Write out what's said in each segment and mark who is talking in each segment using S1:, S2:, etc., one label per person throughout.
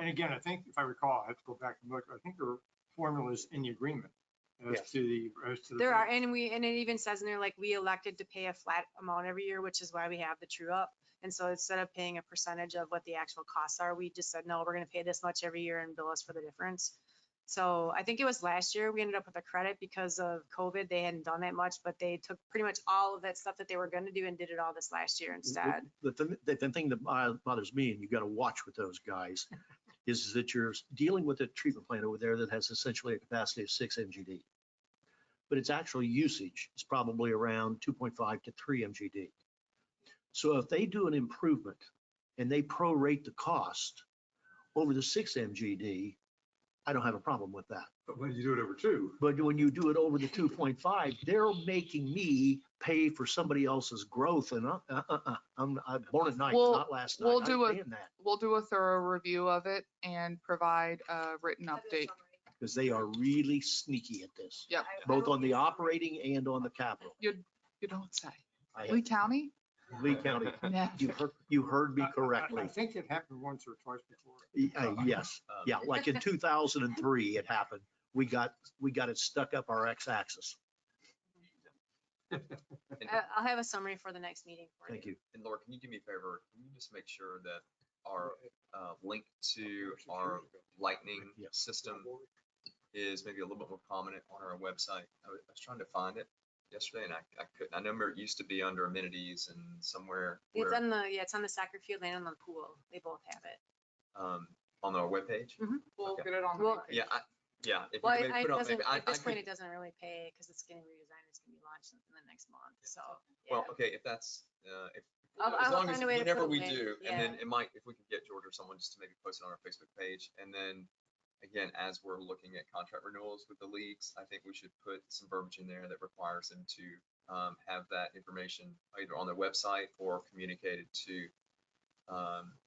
S1: And again, I think if I recall, I have to go back and look, I think there were formulas in the agreement as
S2: Yes.
S1: to the, as to the.
S3: There are,
S1: rate.
S3: and we, and it even says in there, like, we elected to pay a flat amount every year, which is why we have the true up. And so instead of paying a percentage of what the actual costs are, we just said, no, we're gonna pay this much every year and bill us for the difference. So I think it was last year, we ended up with a credit because of COVID, they hadn't done that much, but they took pretty much all of that stuff that they were gonna do and did it all this last year instead.
S2: The, the, the- the thing that bo- bothers me, and you gotta watch with those guys, is that you're dealing with a treatment plant over there that has essentially a capacity of six MGD. But its actual usage is probably around two point five to three MGD. So if they do an improvement and they prorate the cost over the six MGD, I don't have a problem with that.
S4: But when you do it over two,
S2: But when you do it over the two point five, they're making me pay for somebody else's growth and uh, uh, uh, uh, I'm, I'm born at night,
S5: We'll-
S2: not last night.
S5: we'll
S2: I
S5: do a-
S2: understand that
S5: We'll do a thorough review of it and provide a written update.
S2: because they are really sneaky at this,
S5: Yep.
S2: both on the operating and on the capital.
S5: You don't say.
S2: I
S6: Oh,
S5: Lee
S2: have
S5: County?
S2: Lee County,
S5: Yeah.
S2: you heard, you heard me
S1: I- I- I- I
S2: correctly.
S1: think it happened once or twice before.
S2: Y- uh, Yes, yeah, like in two thousand and three, it happened. We got, we got it stuck up our x-axis.
S6: And-
S3: I- Uh, I'll have a summary for the next meeting. for
S2: Thank you.
S6: And Laura, can you do me a favor? Can you just make sure that our uh, link to our lightning
S2: Yes.
S6: system is maybe a little bit more prominent on our website? I was I was trying to find it yesterday and I I couldn't. I remember it used to be under amenities and somewhere
S3: It's
S6: where,
S3: on the, yeah, it's on the soccer field and on the pool. They both have it.
S6: um, on our webpage.
S5: We'll
S6: Okay.
S5: get it on. the
S3: Well-
S5: webpage.
S6: Yeah, I, yeah. if you
S3: Well,
S6: could maybe
S3: I- I-
S6: put
S3: it
S6: on- maybe
S3: doesn't,
S6: I-
S3: at
S6: I
S3: this point,
S6: could-
S3: it doesn't really pay because it's getting redesigned. It's gonna be launched in the next month, so. yeah.
S6: Well, okay, if that's, uh, if,
S3: I'll-
S6: as
S3: I'll
S6: long
S3: find
S6: as,
S3: a way to put
S6: whenever
S3: a
S6: we
S3: link,
S6: do, and then
S3: yeah.
S6: it might, if we could get George or someone just to maybe post it on our Facebook page, and then, again, as we're looking at contract renewals with the leagues, I think we should put some verbiage in there that requires them to, um, have that information either on their website or communicated to, um,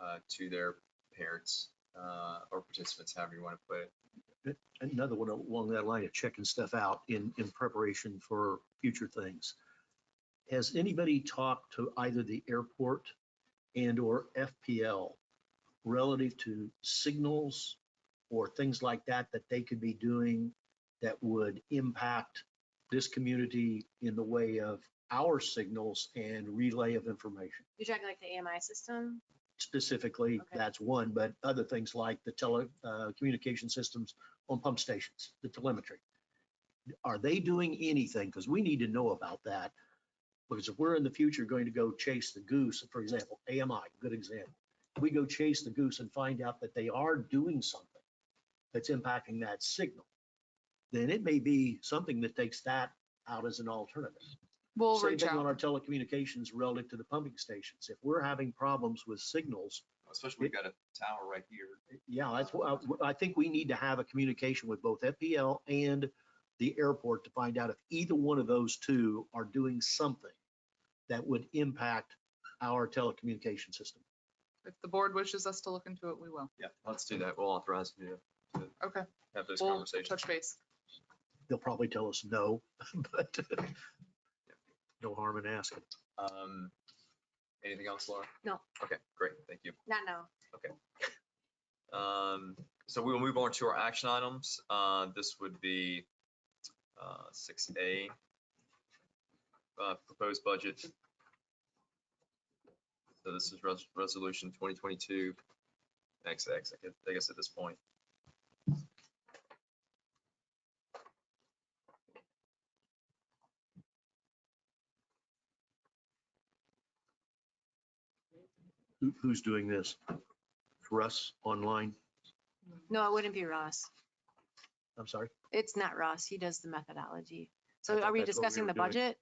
S6: uh, to their parents, uh, or participants, however you want to put it.
S2: another one along that line of checking stuff out in, in preparation for future things. Has anybody talked to either the airport and or FPL relative to signals or things like that that they could be doing that would impact this community in the way of our signals and relay of information?
S3: You're talking like the AMI system?
S2: Specifically,
S3: Okay.
S2: that's one, but other things like the tele, uh, communication systems on pump stations, the telemetry. Are they doing anything? Because we need to know about that. Because if we're in the future going to go chase the goose, for example, AMI, good example. We go chase the goose and find out that they are doing something that's impacting that signal. Then it may be something that takes that out as an alternative.
S5: We'll
S2: Same
S5: reach
S2: thing on our
S5: out.
S2: telecommunications relative to the pumping stations. If we're having problems with signals,
S6: Especially, we've got a tower right here.
S2: yeah, that's, what I I think we need to have a communication with both FPL and the airport to find out if either one of those two are doing something that would impact our telecommunication system.
S5: If the board wishes us to look into it, we will.
S6: Yeah, let's do that. We'll authorize you to- to
S5: Okay.
S6: have those
S5: We'll
S6: conversations.
S5: touch base.
S2: They'll probably tell us no, but no harm in asking.
S6: Um, anything else, Laura?
S3: No.
S6: Okay, great, thank you.
S3: Not now.
S6: Um, so we will move on to our action items. Uh, this would be, uh, six A. Uh, proposed budget. So this is res- resolution twenty twenty-two, X, X, I guess- I guess at this point.
S2: Who- Who's doing this? Russ online?
S3: No, it wouldn't be Ross.
S2: I'm sorry.
S3: It's not Ross. He does the methodology.
S2: I
S3: So
S2: thought
S3: are we
S2: that's what we
S3: discussing
S2: were
S3: the
S2: doing.
S3: budget?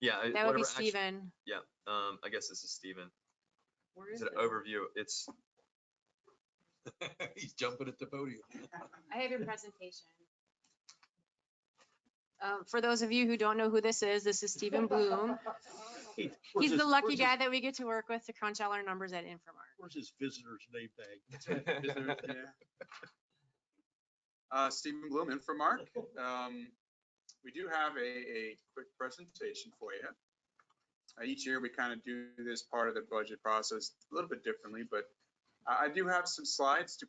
S6: Yeah. it-
S3: That would
S6: whatever
S3: be
S6: action-
S3: Stephen.
S6: Yeah, um, I guess this is Stephen.
S3: Where
S6: Is
S3: is
S6: it Oh.
S3: it?
S6: an overview? It's. He's jumping at the podium.
S3: I have your presentation. Um, For those of you who don't know who this is, this is Stephen Bloom.
S2: Where's
S3: He's the
S2: his-
S3: lucky
S2: where's his-
S3: guy that we get to work with to crunch all our numbers at Infomart.
S2: Where's his visitor's name tag?
S7: Uh, Stephen Bloom, Inframark. Um, we do have a, a quick presentation for you. Uh, each year, we kind of do this part of the budget process a little bit differently, but I I do have some slides to